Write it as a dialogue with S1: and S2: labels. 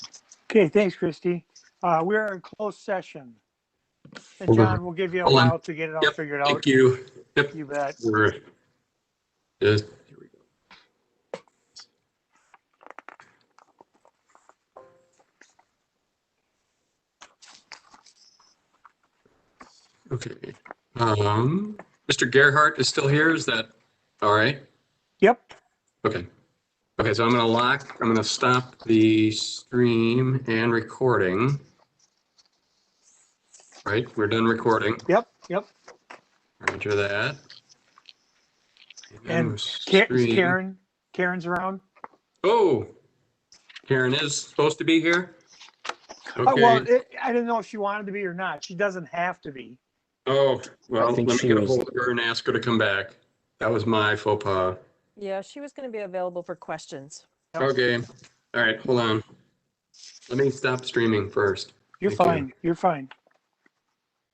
S1: Okay, thanks, Christy. Uh, we're in closed session. And
S2: Hold on.
S1: John, we'll give you a
S2: Hold on.
S1: while to get it all
S2: Yep,
S1: figured out.
S2: Thank you. Yep,
S1: You bet.
S2: we're, just, here we go. Okay, um, Mr. Gerhart is still here, is that all right?
S1: Yep,
S2: Okay. Okay, so I'm gonna lock, I'm gonna stop the stream and recording. Right, we're done recording,
S1: yep, yep.
S2: Roger that.
S1: And Ka-
S2: stream-
S1: Karen, Karen's around.
S2: Oh, Karen is supposed to be here?
S1: Oh, well,
S2: Okay,
S1: it, I didn't know if she wanted to be or not. She doesn't have to be.
S2: oh, well,
S3: I
S2: let me
S3: think she
S2: get a
S3: was-
S2: hold of her and ask her to come back. That was my faux pas.
S4: Yeah, she was going to be available for questions.
S1: Yep.
S2: Okay, all right, hold on. Let me stop streaming first.
S1: You're
S2: Thank you.
S1: fine, you're fine.